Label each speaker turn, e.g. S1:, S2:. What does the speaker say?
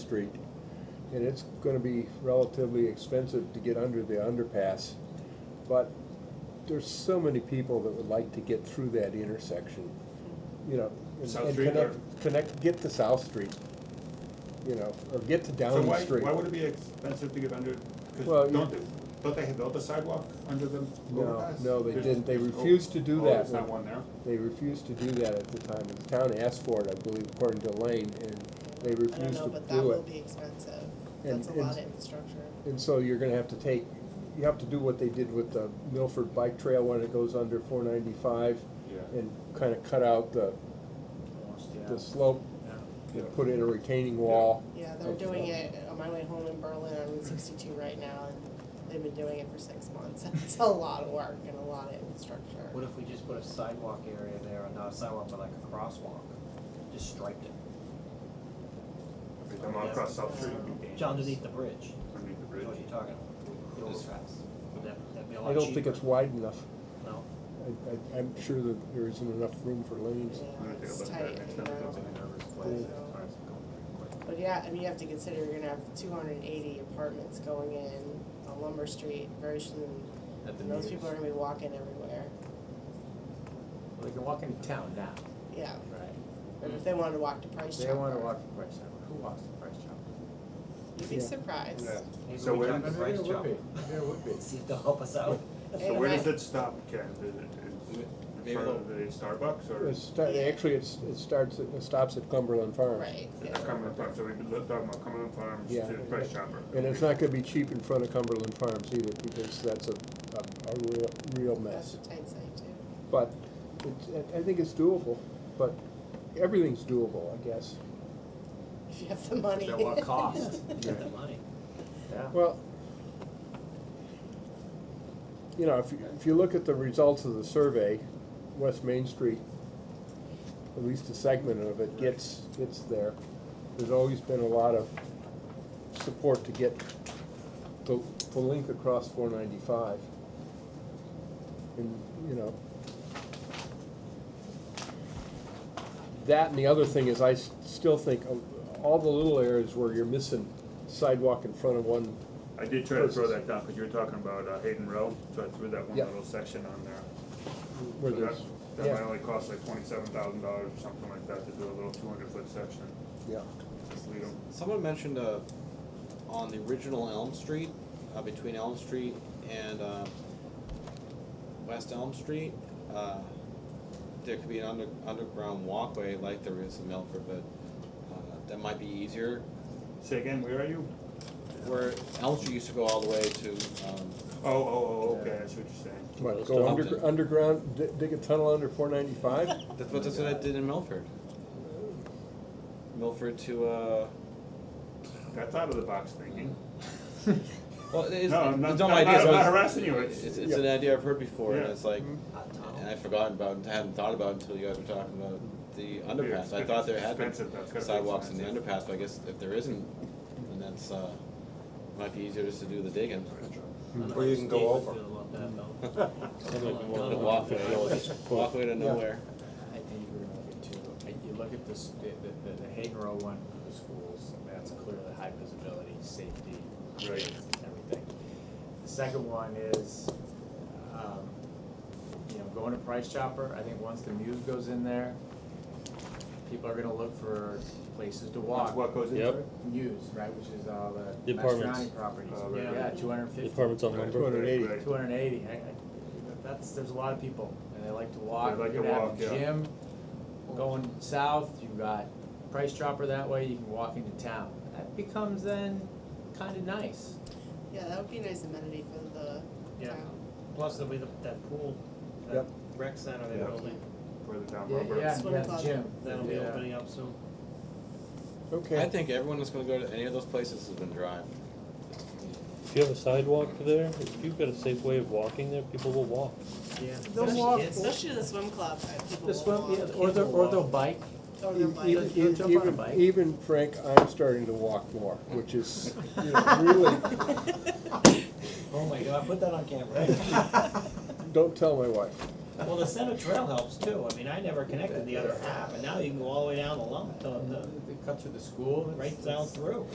S1: Street, and it's gonna be relatively expensive to get under the underpass. But there's so many people that would like to get through that intersection, you know, and-
S2: South
S1: and
S2: Street
S1: connect,
S2: or-
S1: connect, get to South Street, you know, or get to
S2: So
S1: Downing
S2: why,
S1: Street.
S2: why would it be expensive to get under,
S1: Well,
S2: because
S1: you-
S2: don't, they- don't they have built a sidewalk under the
S1: No,
S2: overpass?
S1: no, they
S2: There's-
S1: didn't, they
S2: oh,
S1: refused to do
S2: oh,
S1: that.
S2: There's not one there?
S1: They refused to do that at the time. The town asked for it, I believe, according to Lane, and they
S3: I don't
S1: refused
S3: know,
S1: to
S3: but that
S1: do
S3: will
S1: it.
S3: be expensive.
S1: And-
S3: That's a
S1: and-
S3: lot of infrastructure.
S1: And so you're gonna have to take, you have to do what they did with the Milford Bike Trail when it goes under four ninety-five
S2: Yeah.
S1: and kinda cut out the,
S4: Almost,
S1: the slope and put in a retaining wall.
S3: Yeah, they're
S1: Okay.
S3: doing it on my way home in Berlin on Route sixty-two right now, and they've been doing it for six months. It's a lot of work and a lot of infrastructure.
S4: What if we just put a sidewalk area there, and not a sidewalk, but like a crosswalk, just striped it,
S2: If they come out across South Street, it'd be dangerous.
S4: John, underneath the bridge,
S2: Underneath the
S4: is
S2: bridge.
S4: what you're talking about, the
S5: Just-
S4: overpass, would that, that'd be a lot
S1: I
S4: cheaper?
S1: don't think it's wide enough.
S4: No,
S1: I, I, I'm sure that there isn't enough room for lanes.
S3: Yeah,
S2: I'm gonna take a
S3: it's
S2: look at
S3: tight,
S2: that next
S3: you
S2: time it
S3: know.
S2: comes in.
S4: nervous place,
S3: Yeah.
S4: it's hard to go very quick.
S3: But yeah, I mean, you have to consider you're gonna have two hundred and eighty apartments going in on Lumber Street very soon.
S5: At the
S3: And those
S5: meetings.
S3: people are gonna be walking everywhere.
S5: Well, they can walk into town now,
S3: Yeah,
S5: right?
S3: and
S1: Mm.
S3: if they wanted to walk to Price
S5: They
S3: Chopper.
S5: don't wanna walk to Price Chopper, who walks to Price Chopper?
S3: You'd be
S1: Yeah.
S3: surprised.
S2: Yeah.
S4: Maybe
S2: So
S4: we
S2: where-
S4: talk to
S2: Maybe
S4: Bryce
S5: There would
S4: Chopper,
S5: be, there would be.
S4: see if they'll help us out.
S2: So
S3: And
S2: where
S3: I-
S2: does it stop, Ken? Is it, is it in
S5: Maybe
S2: front
S5: they'll-
S2: of the Starbucks or?
S1: It's, sta- actually, it's, it starts, at- it stops at Cumberland Farms.
S3: Right,
S2: It's
S3: yeah.
S2: Cumberland Farms, so we've been talking about Cumberland Farms
S1: Yeah.
S2: to Price Chopper.
S1: And it's not gonna be cheap in front of Cumberland Farms either, because that's a, a, a real, real mess.
S3: That's a tight site too.
S1: But it's, I- I think it's doable, but everything's doable, I guess.
S3: If you have the money.
S5: At what cost?
S4: Get the money.
S5: Yeah.
S1: Well, you know, if, you- if you look at the results of the survey, West Main Street, at least a segment of it gets, gets there. There's always been a lot of support to get the, the link across four ninety-five. And, you know. That and the other thing is I s- still think of all the little areas where you're missing sidewalk in front of one
S2: I did try to throw that down, cause you were talking about uh, Hayden Row, so I threw that one
S1: Yeah.
S2: little section on there.
S1: where
S2: So
S1: there's,
S2: that- That might
S1: yeah,
S2: only cost like twenty-seven thousand dollars or something like that to do a little two hundred foot section,
S1: yeah.
S2: just leave 'em.
S6: Someone mentioned uh, on the original Elm Street, uh, between Elm Street and uh, West Elm Street, uh, there could be an under, underground walkway like there is in Milford, but uh, that might be easier.
S2: Say again, where are you?
S6: Where Elm Street used to go all the way to, um,
S2: Oh, oh, oh, okay, I see what you're saying.
S1: What,
S6: Those
S1: go
S6: tunnels
S1: under,
S6: in.
S1: underground, di- dig a tunnel under four ninety-five?
S6: that's what that's what I did in Milford. Milford to uh,
S2: That's out of the box thinking.
S6: well, it's,
S2: No, I'm not,
S6: it's
S2: I'm not
S6: not my idea. so
S2: I'm not
S6: it's-
S2: harassing you, it's,
S6: It's, it's an idea I've heard before, and
S2: Yeah.
S6: it's like,
S4: Hot tunnel.
S6: and I'd forgotten about, it, I hadn't thought about it until you guys were talking about the underpass. I thought there had been
S2: Expensive, that's gotta be
S6: sidewalks in the
S2: expensive.
S6: underpass, but I guess if there isn't, then that's, uh, might be easier just to do the digging.
S5: Or you can go over.
S6: The walkway, walkway to nowhere.
S5: I think you're gonna get two, I- you look at this, the, the, the- the Hagen Row one for the schools, that's clearly high visibility, safety,
S2: Right.
S5: everything. The second one is, um, you know, going to Price Chopper, I think once the Muse goes in there, people are gonna look for places to
S2: That's
S5: walk.
S2: what goes into
S7: Yep.
S2: it?
S5: Muse, right, which is all the
S7: The apartments.
S5: Mastriani properties,
S2: Oh, right,
S5: yeah,
S2: right.
S5: two hundred and fifty.
S7: Departments on
S2: Right,
S7: lumber.
S2: right,
S1: 280.
S2: right.
S5: Two hundred and eighty, I, I, that's, there's a lot of people, and they like to walk,
S2: They like
S5: you're
S2: to
S5: gonna
S2: walk,
S5: have
S2: yeah.
S5: a gym, going south, you've got Price Chopper that way, you can walk into town. That becomes then kinda nice,
S3: Yeah, that would be a nice amenity for the
S4: Yeah.
S3: town.
S4: Plus there'll be the, that pool, that
S1: Yep.
S4: rec center
S2: Yeah.
S4: they're building,
S2: Further down
S5: yeah,
S2: Robert.
S5: yeah, you
S3: Swim
S5: have
S3: club.
S5: the gym,
S4: that'll be
S5: Yeah.
S4: opening up soon.
S1: Okay.
S6: I think everyone that's gonna go to any of those places is gonna drive.
S7: If you have a sidewalk there, if you've got a safe way of walking there, people will walk.
S4: Yeah.
S7: They'll
S4: Especially
S7: walk.
S4: kids.
S3: Especially the swim club, uh, people
S5: The swim,
S3: will
S5: yeah,
S3: walk.
S5: or the, or the
S4: People walk.
S5: bike,
S3: Or their
S1: Even-
S3: bike.
S1: even-
S5: They'll jump on a
S1: E-, even-
S5: bike.
S1: Even Frank, I'm starting to walk more, which is, you know, really,
S4: Oh my god, put that on camera.
S1: don't tell my wife.
S4: Well, the center trail helps too, I mean, I never connected the other half, and now you can go all the way down the lump, the, the,
S5: they cut through the school, it's-
S4: right down
S5: it's-
S4: through.